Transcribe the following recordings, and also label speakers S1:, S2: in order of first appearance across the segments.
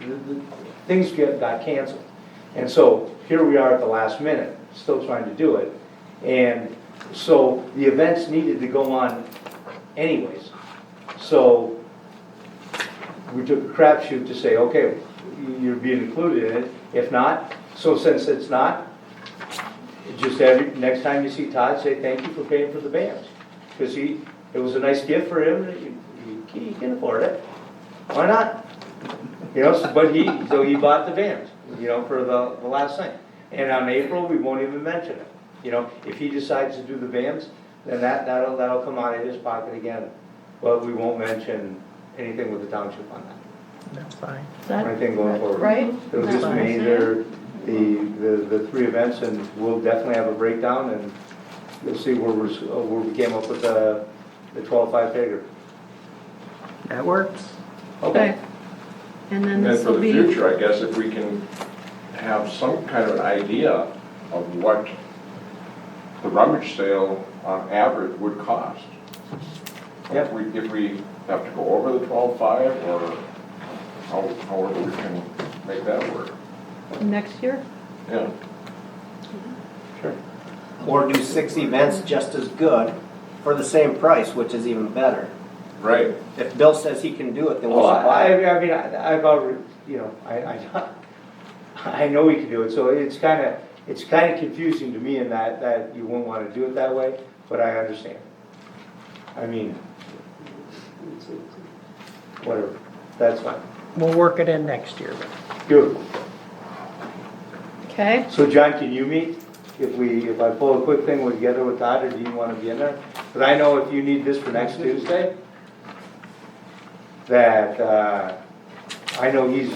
S1: the- the- things get, got canceled. And so here we are at the last minute, still trying to do it. And so the events needed to go on anyways. So we took a crapshoot to say, okay, you're being included in it. If not, so since it's not, just every, next time you see Todd, say thank you for paying for the bands. Because he, it was a nice gift for him, he- he can afford it. Why not? You know, so- but he, so he bought the bands, you know, for the, the last thing. And on April, we won't even mention it. You know, if he decides to do the bands, then that, that'll, that'll come out of his pocket again. But we won't mention anything with the township on that,
S2: That's fine.
S1: or anything going forward.
S3: Right?
S1: It'll just
S3: That's
S1: be
S3: fine.
S1: either the, the, the three events and we'll definitely have a breakdown and you'll see where we're, s- uh, where we came up with the, the twelve-five figure.
S2: That works.
S3: Okay. And then
S4: And then
S3: this
S4: for
S3: will
S4: the
S3: be.
S4: future, I guess if we can have some kind of an idea of what the rummage sale on average would cost. If
S1: Yep.
S4: we, if we have to go over the twelve-five or how- however we can make that work,
S3: Next year?
S4: yeah.
S1: Sure.
S5: Or do six events just as good for the same price, which is even better.
S4: Right.
S5: If Bill says he can do it, then
S1: Well,
S5: we'll
S1: Oh, I,
S5: buy it.
S1: I- I mean, I, I've already, you know, I, I, I know we can do it, so it's kinda, it's kinda confusing to me in that, that you wouldn't wanna do it that way, but I understand. I mean, it's- it's- whatever, that's fine.
S2: We'll work it in next year. then.
S1: Beautiful.
S3: Okay.
S1: So John, can you meet? If we, if I pull a quick thing together with Todd, or do you wanna be in there? But I know if you need this for next Tuesday, that, uh, I know he's,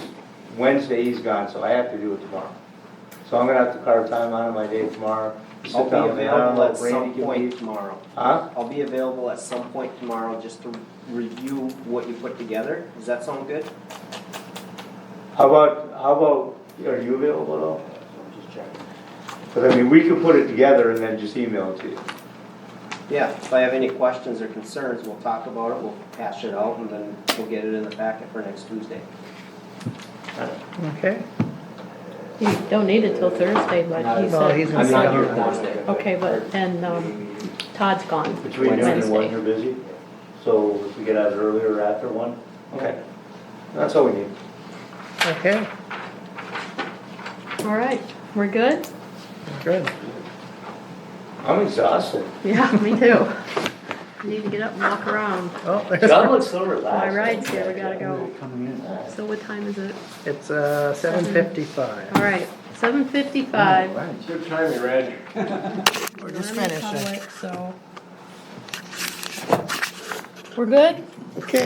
S1: Wednesday he's gone, so I have to do it tomorrow. So I'm gonna have to carve time out of my day tomorrow. sit
S5: I'll be
S1: down with Alan,
S5: available at
S1: Randy
S5: some
S1: can
S5: point
S1: meet.
S5: tomorrow.
S1: Huh?
S5: I'll be available at some point tomorrow just to review what you put together. Does that sound good?
S1: How about, how about, are you available at all? Cause I mean, we could put it together and then just email it to you.
S5: Yeah, if I have any questions or concerns, we'll talk about it, we'll hash it out, and then we'll get it in the packet for next Tuesday.
S2: Okay?
S3: You don't need it till Thursday, but he
S2: Well, he's
S3: said.
S2: gonna be
S5: not here
S2: gone.
S5: Thursday.
S3: Okay, but then um, Todd's gone
S1: Between noon and one,
S3: Wednesday.
S1: you're busy? So if we get out earlier or after one? Okay. That's all we need.
S2: Okay,
S3: All right, we're good?
S2: good.
S1: I'm exhausted.
S3: Yeah, me too. Need to get up and walk around.
S2: Oh,
S1: John
S2: there's,
S1: looks so
S3: My
S1: relaxed.
S3: ride's here, we gotta go.
S6: Coming in.
S3: So what time is it?
S2: it's, uh, seven
S3: All
S2: fifty-five.
S3: right, seven fifty-five.
S6: Right.
S4: Good timing, Reg.
S2: We're just
S3: I'm in
S2: finishing.
S3: public, So. We're good?
S2: Okay.